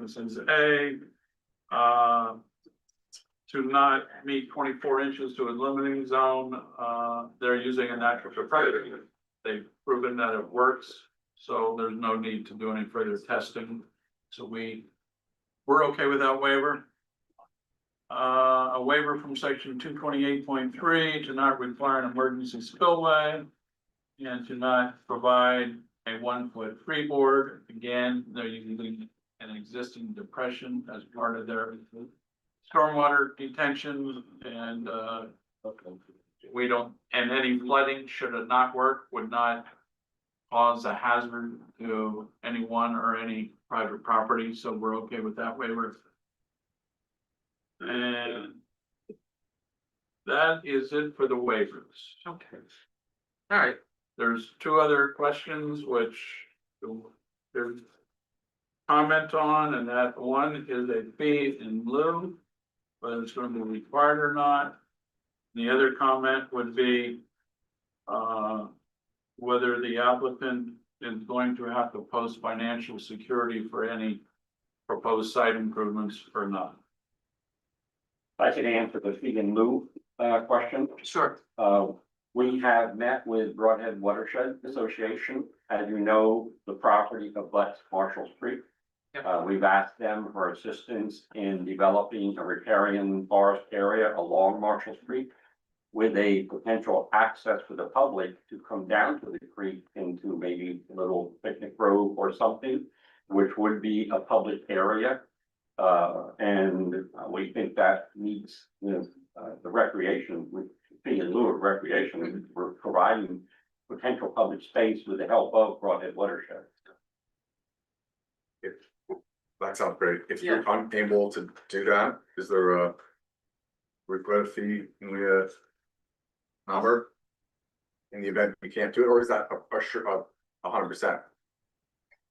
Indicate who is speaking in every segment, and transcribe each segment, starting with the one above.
Speaker 1: This is A. Uh. To not meet twenty-four inches to a limiting zone, uh, they're using a natural proprietary. They've proven that it works, so there's no need to do any further testing. So we, we're okay with that waiver. Uh, a waiver from section two twenty-eight point three to not require an emergency spillway. And to not provide a one-foot freeboard. Again, they're using an existing depression as part of their stormwater detention and, uh, we don't, and any flooding, should it not work, would not cause a hazard to anyone or any private property, so we're okay with that waiver. And that is it for the waivers.
Speaker 2: Okay. All right,
Speaker 1: There's two other questions which there's comment on, and that one is a fee in lieu, whether it's gonna be required or not. The other comment would be uh, whether the applicant is going to have to post financial security for any proposed site improvements or not.
Speaker 3: I can answer the fee in lieu uh question.
Speaker 2: sure.
Speaker 3: Uh, we have met with Broadhead Watershed Association. As you know, the property abuts Marshall Street.
Speaker 2: Yep.
Speaker 3: Uh, we've asked them for assistance in developing a riparian forest area along Marshall Street. With a potential access for the public to come down to the creek into maybe a little picnic grove or something. Which would be a public area. Uh, and uh, we think that needs, you know, uh, the recreation, we being in lieu of recreation, we're providing potential public space with the help of Broadhead Watershed.
Speaker 4: That sounds great. If you're unable to do that, is there a regret fee in the uh, number? In the event we can't do it, or is that a, a sure, a, a hundred percent?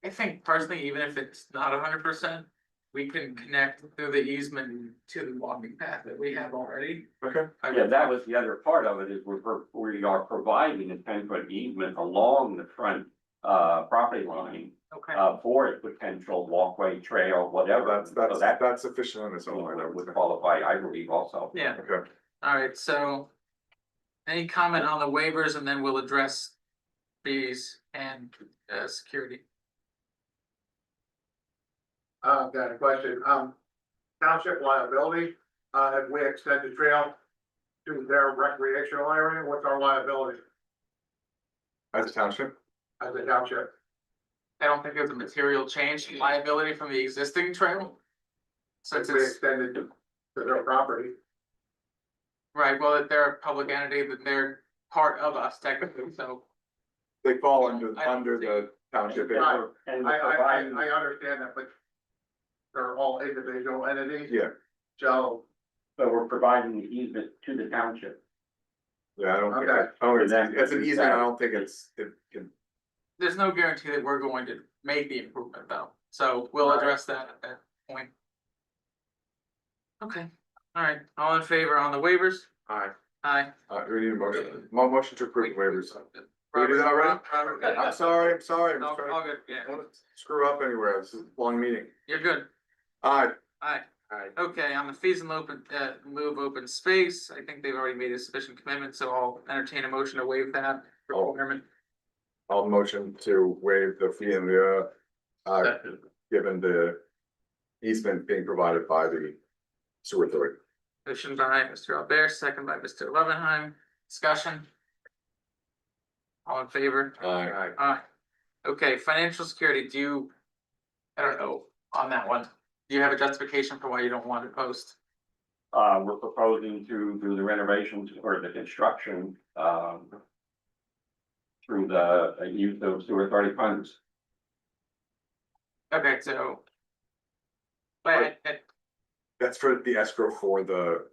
Speaker 2: I think personally, even if it's not hundred percent, we can connect through the easement to the walking path that we have already.
Speaker 4: Okay.
Speaker 2: I
Speaker 3: Yeah,
Speaker 2: would-
Speaker 3: that was the other part of it is we're, pro- we are providing a ten foot easement along the front uh property line
Speaker 2: Okay,
Speaker 3: uh for a potential walkway, trail, whatever.
Speaker 4: That's,
Speaker 3: So
Speaker 4: that's,
Speaker 3: that
Speaker 4: that's sufficient on its own, right? I would
Speaker 3: would
Speaker 4: think.
Speaker 3: qualify, I believe also.
Speaker 2: yeah,
Speaker 4: Okay,
Speaker 2: all right, so. Any comment on the waivers and then we'll address fees and uh security.
Speaker 5: Uh, I've got a question, um, township liability, uh, if we extend the trail to their recreational area, what's our liability
Speaker 4: as a township,
Speaker 5: as a township?
Speaker 2: I don't think there's a material change in liability from the existing trail.
Speaker 5: If
Speaker 2: Since
Speaker 5: we
Speaker 2: it's,
Speaker 5: extend it to their property,
Speaker 2: right, well, if they're a public entity, then they're part of us technically, so.
Speaker 4: they fall under,
Speaker 2: I don't
Speaker 4: under the township.
Speaker 5: Right. I,
Speaker 3: And
Speaker 5: I,
Speaker 3: we're
Speaker 5: I,
Speaker 3: providing-
Speaker 5: I understand that, but they're all individual entities,
Speaker 4: Yeah,
Speaker 5: so
Speaker 3: but we're providing the easement to the township.
Speaker 4: yeah, I don't think,
Speaker 5: Okay.
Speaker 4: that- I don't, think
Speaker 3: That-
Speaker 4: it's, it's an easement, I don't think it's, it can,
Speaker 2: there's no guarantee that we're going to make the improvement though, so we'll
Speaker 5: Right.
Speaker 2: address that at that point. Okay, alright, all in favor on the waivers?
Speaker 4: Aye.
Speaker 2: Aye.
Speaker 4: uh, we need a motion, mo- motion to approve waivers. We
Speaker 2: Robert,
Speaker 4: did that already?
Speaker 2: Robert,
Speaker 4: I'm
Speaker 2: Robert,
Speaker 4: sorry, I'm sorry, I'm
Speaker 2: all,
Speaker 4: sorry.
Speaker 2: all good, yeah,
Speaker 4: I don't wanna Screw up anywhere, this is a long meeting.
Speaker 2: you're good,
Speaker 4: Aye.
Speaker 2: aye.
Speaker 4: Aye.
Speaker 2: Okay, on the fees and open, uh, move open space, I think they've already made a sufficient commitment, so I'll entertain a motion to waive that
Speaker 4: Oh.
Speaker 2: requirement.
Speaker 4: I'll motion to waive the fee in lieu, uh, given the easement being provided by the sewer authority.
Speaker 2: Motion by Mr. Albert, second by Mr. Levenheim, discussion? All in favor?
Speaker 4: Aye.
Speaker 2: Alright, Ah, okay, financial security, do you? I don't know, on that one, do you have a justification for why you don't want to post?
Speaker 3: Uh, we're proposing to do the renovations or the construction, um. Through the uh, use of sewer authority funds.
Speaker 2: Okay, so. But, uh,
Speaker 4: That's for the escrow for the,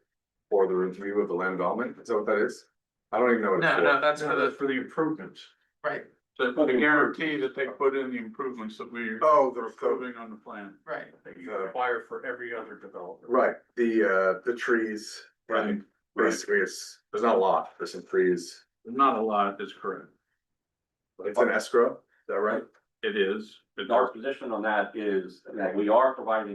Speaker 4: for the review of the land development, is that what that is? I don't even know what it's
Speaker 2: no, no,
Speaker 4: for.
Speaker 2: that's for the,
Speaker 1: for the improvements.
Speaker 2: right,
Speaker 1: So for the guarantee that they put in the improvements that we're
Speaker 4: Oh, the, the,
Speaker 1: approving on the plan.
Speaker 2: right,
Speaker 1: that you require for every other developer.
Speaker 4: right, the, uh, the trees.
Speaker 1: Right.
Speaker 4: Basically, it's, there's not a lot, there's some trees,
Speaker 1: Not a lot is correct.
Speaker 4: it's an escrow, is that right?
Speaker 1: It is. It-
Speaker 3: Our position on that is that we are providing